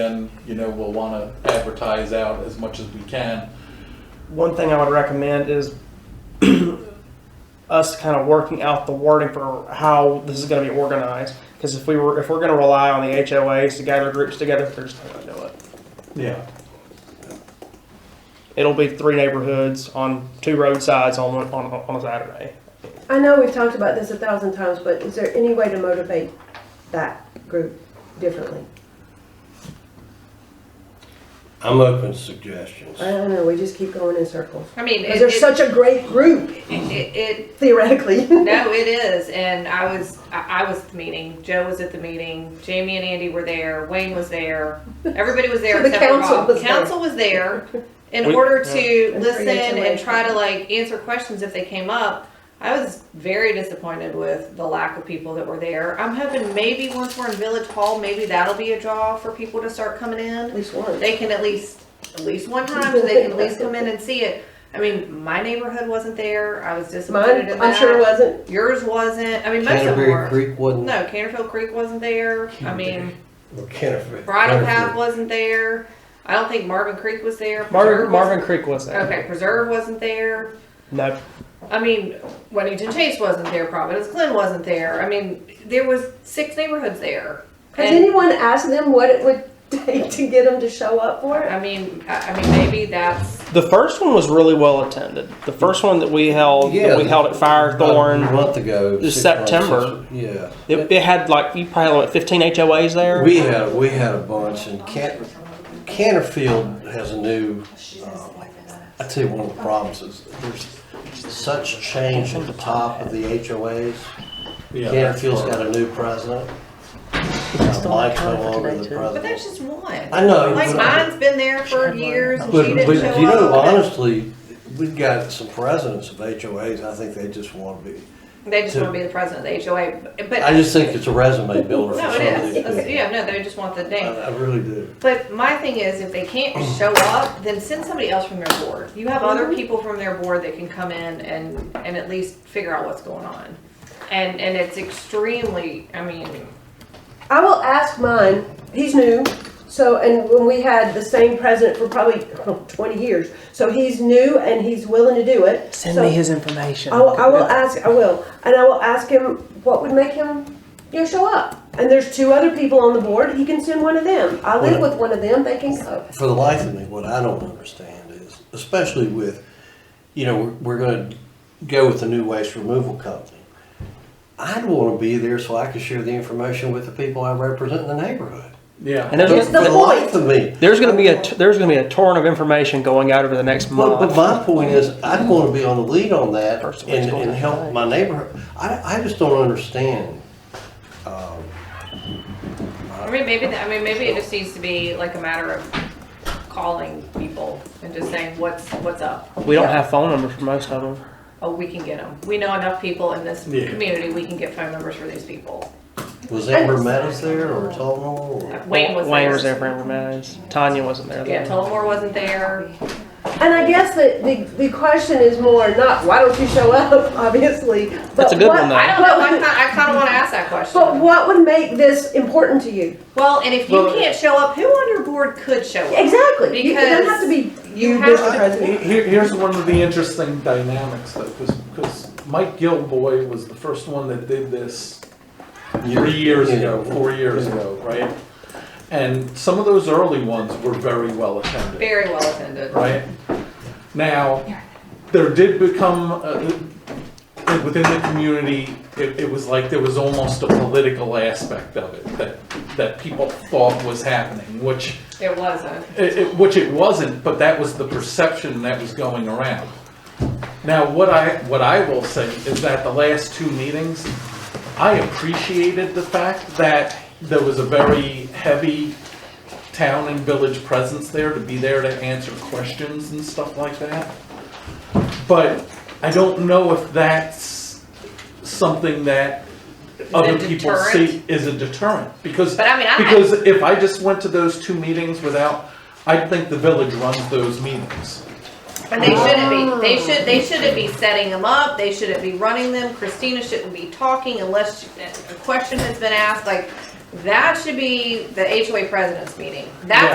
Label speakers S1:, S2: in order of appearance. S1: then, you know, we'll wanna advertise out as much as we can.
S2: One thing I would recommend is us kind of working out the wording for how this is going to be organized. Because if we were, if we're going to rely on the HOAs to gather groups together, they're just not going to do it.
S1: Yeah.
S2: It'll be three neighborhoods on two roadsides on one- on on a Saturday.
S3: I know we've talked about this a thousand times, but is there any way to motivate that group differently?
S4: I'm open to suggestions.
S3: I don't know, we just keep going in circles.
S5: I mean,
S3: Because
S5: it,
S3: they're
S5: it,
S3: such a great group
S5: it, it-
S3: theoretically.
S5: no, it is. And I was, I, I was at the meeting. Joe was at the meeting. Jamie and Andy were there. Wayne was there. Everybody was there.
S3: So the
S5: except for
S3: council
S5: Bob.
S3: was there.
S5: council was there in
S2: We-
S5: order
S3: And
S5: to
S3: for
S5: listen
S3: HOA.
S5: and try to like answer questions if they came up. I was very disappointed with the lack of people that were there. I'm hoping maybe once we're in Village Hall, maybe that'll be a draw for people to start coming in.
S3: At least one.
S5: they can at least, at least one time, so they can at least come in and see it. I mean, my neighborhood wasn't there, I was disappointed
S3: Mine,
S5: in that.
S3: I'm sure wasn't.
S5: Yours wasn't, I mean, most of them
S4: Canterbury
S5: were.
S4: Creek wasn't,
S5: No, Canterville Creek wasn't there, I mean,
S4: or Canterbury.
S5: Bridle Path
S4: Canterbury.
S5: wasn't there, I don't think Marvin Creek was there.
S2: Marvin,
S5: Preserve wasn't-
S2: Marvin Creek was there.
S5: Okay, Preserve wasn't there,
S2: No,
S5: I mean, Weddington Chase wasn't there, Providence Glen wasn't there, I mean, there was six neighborhoods there.
S3: Has
S5: And-
S3: anyone asked them what it would take to get them to show up for it?
S5: I mean, I, I mean, maybe that's
S2: the first one was really well attended. The first one that we held,
S4: Yeah,
S2: that we held at Firethorn.
S4: About a month ago.
S2: It was
S4: six months,
S2: September.
S4: six- Yeah.
S2: It, it had like you probably had like 15 HOAs there.
S4: We had, we had a bunch and Can, Canterfield has a new, um, I'd say one of the problems is there's such change at the top of the HOAs. Canterfield's got a new president. Uh, Mike's no longer the
S5: But that's
S4: president.
S5: just one.
S4: I know,
S5: Like
S4: but-
S5: mine's been there for years and she
S4: But,
S5: didn't show up.
S4: but you know, honestly, we've got some presidents of HOAs, I think they just want to be,
S5: They just wanna be the president of the HOA,
S4: I
S5: but,
S4: just think it's a resume builder for
S5: no,
S4: some of
S5: it
S4: these
S5: is.
S4: people.
S5: It's- Yeah, no, they just want the
S4: I,
S5: name.
S4: I really do.
S5: But my thing is, if they can't show up, then send somebody else from their board. You have other people from their board that can come in and, and at least figure out what's going on. And, and it's extremely, I mean,
S3: I will ask mine. He's new. So, and when we had the same president for probably oh, 20 years, so he's new and he's willing to do it.
S6: Send
S3: So
S6: me his information.
S3: I will, I will ask, I will, and I will ask him what would make him, you know, show up. And there's two other people on the board, he can send one of them. I live with one of them, they can go.
S4: For the life of me, what I don't understand is, especially with, you know, we're, we're gonna go with the new waste removal company. I'd wanna be there so I could share the information with the people I represent in the neighborhood.
S1: Yeah.
S2: And there's,
S4: But
S3: That's
S4: For
S3: the
S4: the life
S3: point.
S4: of me,
S2: there's going to be a there's going to be a torrent of information going out over the next month.
S4: But, but my point is, I'd want to be on the lead on that
S2: First of all, it's
S4: and,
S2: going
S4: and
S2: to
S4: help
S2: die.
S4: my neighborhood. I, I just don't understand. um,
S5: I mean, maybe, that- I mean, maybe it just needs to be like a matter of calling people and just saying, what's, what's up?
S2: we don't have phone numbers for most of them.
S5: Oh, we can get them. We know enough people in this
S1: Yeah.
S5: community, we can get phone numbers for these people.
S4: Was Amber Meadows there or Tullamore?
S5: Wayne was
S2: Wayne was there
S5: there.
S2: for information. Tanya wasn't there.
S5: Yeah,
S2: though.
S5: Tullamore wasn't there.
S3: And I guess that the, the question is more not, why don't you show up, obviously? but
S2: That's a good
S3: what-
S2: one, though.
S5: I don't know,
S3: what
S5: I
S3: would-
S5: kinda, I kinda wanna ask that
S3: But
S5: question.
S3: what would make this important to you?
S5: Well, and if you
S1: Well-
S5: can't show up, who on your board could show up?
S3: Exactly, you it doesn't have to be you,
S5: Because you
S3: Mr.
S5: have-
S1: He-
S3: President.
S1: Here, here's one of the interesting dynamics though, because, Mike Gilboy was the first one that did this three years ago, four years ago, right? And some of those early ones were very well attended.
S5: Very well attended.
S1: right? Now, there did become, uh, within the community, it, it was like there was almost a political aspect of it that, that people thought was happening, which,
S5: It wasn't.
S1: it, it- which it wasn't, but that was the perception that was going around. Now, what I, what I will say is that the last two meetings, I appreciated the fact that there was a very heavy town and village presence there to be there to answer questions and stuff like that. But I don't know if that's something that other people see
S5: deterrent?
S1: is a deterrent, because.
S5: But I mean, I-
S1: Because if I just went to those two meetings without, I think the village runs those meetings.
S5: And they shouldn't be.
S3: Ah.
S5: They should, they shouldn't be setting them up. They shouldn't be running them. Christina shouldn't be talking unless she- a question has been asked, like, That should be the HOA president's meeting. That's